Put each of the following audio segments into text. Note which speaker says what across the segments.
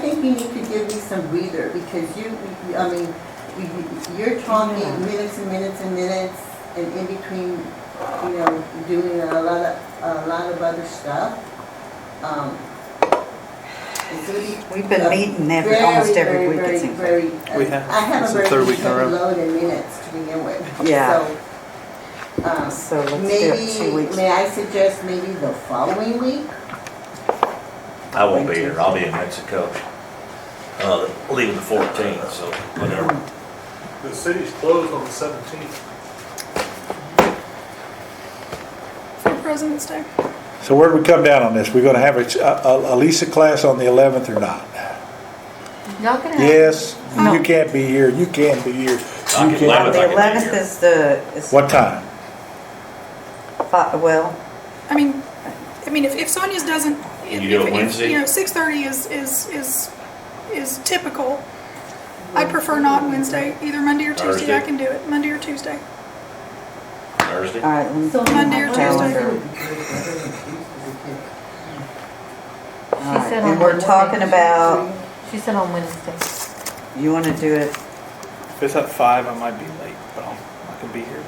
Speaker 1: think you need to give me some breather because you, I mean, you- you're talking
Speaker 2: Yeah.
Speaker 1: minutes and minutes and minutes and in between, you know, doing a lot of, a lot of other stuff. Um, It's really
Speaker 2: We've been meeting every, almost every week, it seems like.
Speaker 1: very, very,
Speaker 3: We
Speaker 1: very,
Speaker 3: have.
Speaker 1: I have
Speaker 3: It's
Speaker 1: a
Speaker 3: the
Speaker 1: very
Speaker 3: third week in a row.
Speaker 1: heavy load in minutes to begin with.
Speaker 2: Yeah.
Speaker 1: So, um,
Speaker 2: So let's do it two
Speaker 1: Maybe,
Speaker 2: weeks.
Speaker 1: may I suggest maybe the following week?
Speaker 4: I won't be here, I'll be in Mexico. Uh, leaving the fourteenth, so whatever.
Speaker 5: The city's closed on the seventeenth.
Speaker 6: for President's Day.
Speaker 7: So where do we come down on this? We're gonna have a, a, a Lisa class on the eleventh or not?
Speaker 8: Not gonna happen.
Speaker 7: Yes, you can't be here, you can be here,
Speaker 4: I
Speaker 7: you
Speaker 4: can
Speaker 7: can.
Speaker 4: live it.
Speaker 2: The eleventh is the, is,
Speaker 7: What time?
Speaker 2: fi- well,
Speaker 6: I mean, I mean, if, if Sonia's doesn't,
Speaker 4: Can
Speaker 6: if,
Speaker 4: you do it
Speaker 6: if-
Speaker 4: Wednesday?
Speaker 6: you know, six thirty is is is is typical. I prefer not Wednesday, either Monday or Tuesday. I
Speaker 4: Thursday?
Speaker 6: can do it Monday or Tuesday.
Speaker 4: Thursday.
Speaker 2: all right, let me
Speaker 8: So
Speaker 2: put
Speaker 6: Monday
Speaker 2: my
Speaker 6: or
Speaker 2: calendar. All
Speaker 8: She
Speaker 2: right,
Speaker 8: said
Speaker 2: And
Speaker 8: on
Speaker 2: we're
Speaker 8: Wednesday.
Speaker 2: talking about,
Speaker 8: She said on Wednesday.
Speaker 2: you wanna do it,
Speaker 3: If it's at five, I might be late, but I'll, I can be here.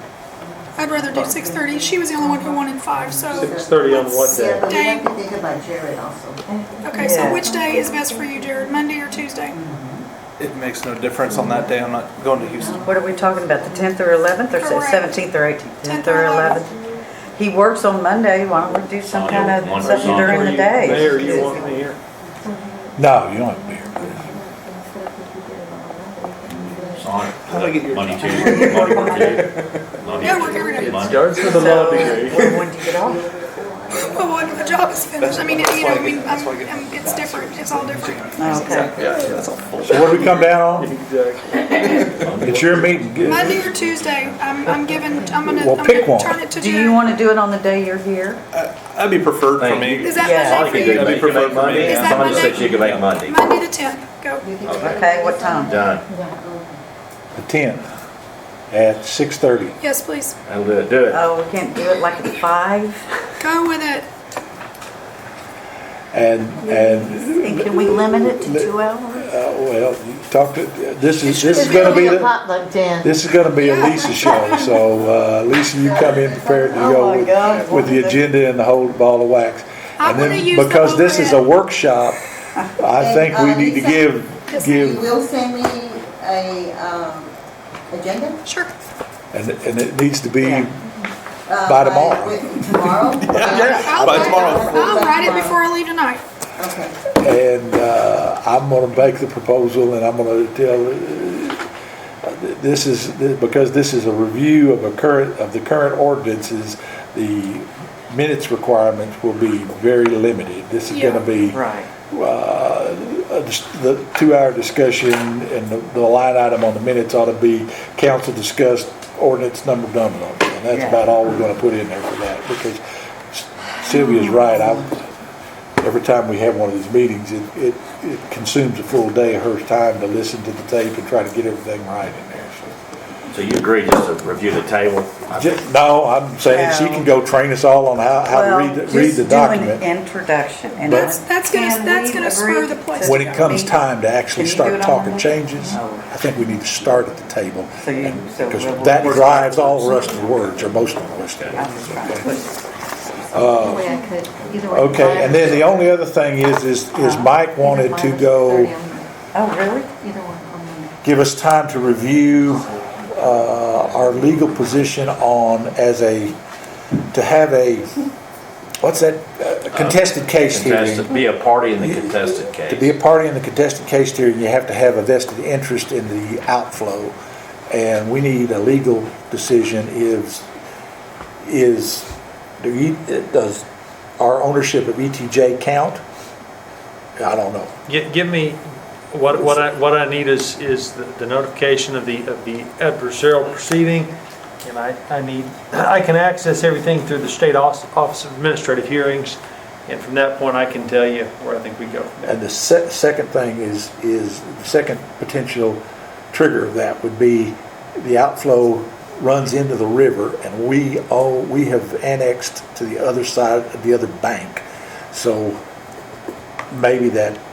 Speaker 6: I'd rather do six thirty. She was the only one who wanted five, so.
Speaker 5: 6:30 on what
Speaker 1: Yeah,
Speaker 5: day?
Speaker 1: but we have to think about Jared also.
Speaker 6: Okay,
Speaker 2: Yeah.
Speaker 6: so which day is best for you, Jared? Monday or Tuesday?
Speaker 3: It makes no difference on that day, I'm not going to Houston.
Speaker 2: what are we talking about, the tenth or eleventh, or
Speaker 6: Correct.
Speaker 2: seventeenth or eighteenth?
Speaker 6: 10th
Speaker 2: Tenth
Speaker 6: or
Speaker 2: or eleventh? He works on Monday, why don't we do some
Speaker 4: Sonia
Speaker 2: kind of,
Speaker 4: wanders
Speaker 2: something
Speaker 4: on.
Speaker 2: during the day?
Speaker 5: Mayor, you want me here?
Speaker 7: No, you don't have to be here.
Speaker 4: Sonic.
Speaker 3: How do I get your-
Speaker 4: Monday, Tuesday, Monday,
Speaker 6: Yeah, we're
Speaker 4: Monday,
Speaker 6: here today.
Speaker 4: Tuesday, Monday.
Speaker 5: Starts with a lobby.
Speaker 2: Or when do you get off?
Speaker 6: Oh, Well, when the job is finished, I mean,
Speaker 3: That's
Speaker 6: you know,
Speaker 3: why I
Speaker 6: I mean,
Speaker 3: get- that's
Speaker 6: I'm,
Speaker 3: why I get-
Speaker 6: I'm- it's different. It's all different.
Speaker 2: Okay.
Speaker 3: Yeah, that's all full.
Speaker 7: So where do we come down on?
Speaker 5: Exactly.
Speaker 7: It's your meeting.
Speaker 6: Monday or Tuesday, I'm, I'm giving, I'm gonna,
Speaker 7: Well,
Speaker 6: I'm
Speaker 7: pick
Speaker 6: gonna
Speaker 7: one.
Speaker 6: turn it to
Speaker 2: Do you
Speaker 6: Jared.
Speaker 2: wanna do it on the day you're here?
Speaker 3: That'd be preferred for me.
Speaker 6: Is that
Speaker 2: Yeah.
Speaker 6: Monday
Speaker 4: Sonic,
Speaker 6: for you?
Speaker 4: you can
Speaker 3: That'd
Speaker 4: make
Speaker 3: be preferred for
Speaker 4: Monday.
Speaker 3: me.
Speaker 6: Is that
Speaker 4: Sonic
Speaker 6: Monday?
Speaker 4: said you could make Monday.
Speaker 6: Monday the tenth, go.
Speaker 2: Okay, what time?
Speaker 4: Done.
Speaker 7: The tenth at six thirty.
Speaker 6: Yes, please.
Speaker 4: That'll do it, do
Speaker 6: Uh,
Speaker 4: it.
Speaker 2: Oh, we can't do it like at five?
Speaker 6: Go with it.
Speaker 7: And, and,
Speaker 2: And can we limit it to two hours?
Speaker 7: uh, well, you talk to, this is, this is
Speaker 8: It's gonna be a
Speaker 7: the,
Speaker 8: potluck, Dan.
Speaker 7: this is gonna be a Lisa show, so, uh, Lisa, you come in prepared to
Speaker 2: Oh, my
Speaker 7: go
Speaker 2: God.
Speaker 7: with, with the agenda and the whole ball of wax.
Speaker 6: I
Speaker 7: And then,
Speaker 6: wanna use the
Speaker 7: Because this is a
Speaker 6: overhead.
Speaker 7: workshop, I
Speaker 1: And,
Speaker 7: think we
Speaker 1: uh,
Speaker 7: need to
Speaker 1: Lisa,
Speaker 7: give,
Speaker 6: this
Speaker 1: You
Speaker 7: give,
Speaker 1: will send me a, um, agenda?
Speaker 6: Sure.
Speaker 7: and, and it needs to be,
Speaker 2: Yeah.
Speaker 1: Uh,
Speaker 7: By tomorrow.
Speaker 1: with- Tomorrow?
Speaker 3: yeah.
Speaker 6: I'll
Speaker 3: By
Speaker 6: write-
Speaker 3: tomorrow.
Speaker 6: I'll write it before I leave tonight.
Speaker 1: Okay.
Speaker 7: and uh, I'm going to make the proposal, and I'm going to tell, uh, this is, because this is a review of a current, of the current ordinances, the minutes requirements will be very limited. This is going to be
Speaker 2: Right.
Speaker 7: uh, a dis- the two-hour discussion and the- the line item on the minutes ought to be council discussed ordinance number blah blah. blah. And that's
Speaker 2: Yeah.
Speaker 7: about all we're gonna put in there for that, because Sylvia's right, I, every time we have one of these meetings, it, it it consumes a full day of her time to listen to the tape and try to get everything right in there,
Speaker 4: So
Speaker 7: so.
Speaker 4: you agree just to review the table?
Speaker 7: Ju- No, I'm saying she can go train us all on how, how to read, the- read the
Speaker 2: Well, just do
Speaker 7: document
Speaker 2: an introduction. and
Speaker 7: But-
Speaker 6: That's, that's gonna,
Speaker 2: Can
Speaker 6: that's
Speaker 2: we
Speaker 6: gonna
Speaker 2: agree
Speaker 6: spur the place.
Speaker 2: to-
Speaker 7: when it comes time to actually
Speaker 2: Can you do it
Speaker 7: start
Speaker 2: on
Speaker 7: talking
Speaker 2: Monday?
Speaker 7: changes.
Speaker 2: No.
Speaker 7: I think we need to start at the table.
Speaker 2: So you- so
Speaker 7: Because
Speaker 2: we'll-
Speaker 7: that
Speaker 2: we'll-
Speaker 7: drives all the rest of the words, or most of the rest of the
Speaker 2: I'm
Speaker 7: words.
Speaker 2: just trying to push.
Speaker 8: Either way I could, either way.
Speaker 7: Okay, and then the only other thing is, is, is
Speaker 2: Uh,
Speaker 7: Mike wanted to go,
Speaker 2: Oh, really?
Speaker 8: Either one, on Monday.
Speaker 7: give us time to review, uh, our legal position on as a, to have a, what's that, uh, contested case hearing.
Speaker 4: Contested, be a party in the contested case.
Speaker 7: To be a party in the contested case hearing, you have to have a vested interest in the outflow. And we need a legal decision is, is, do you, does our ownership of ETJ count? I don't know.
Speaker 5: Get, give me, what, what I, what I need is, is the- the notification of the, of the adversarial proceeding. And I, I need, I can access everything through the state office, office of administrative hearings. And from that point, I can tell you where I think we go. from there.
Speaker 7: And the se- second thing is, is, the second potential trigger of that would be the outflow runs into the river and we own, we have annexed to the other side of the other bank. So maybe that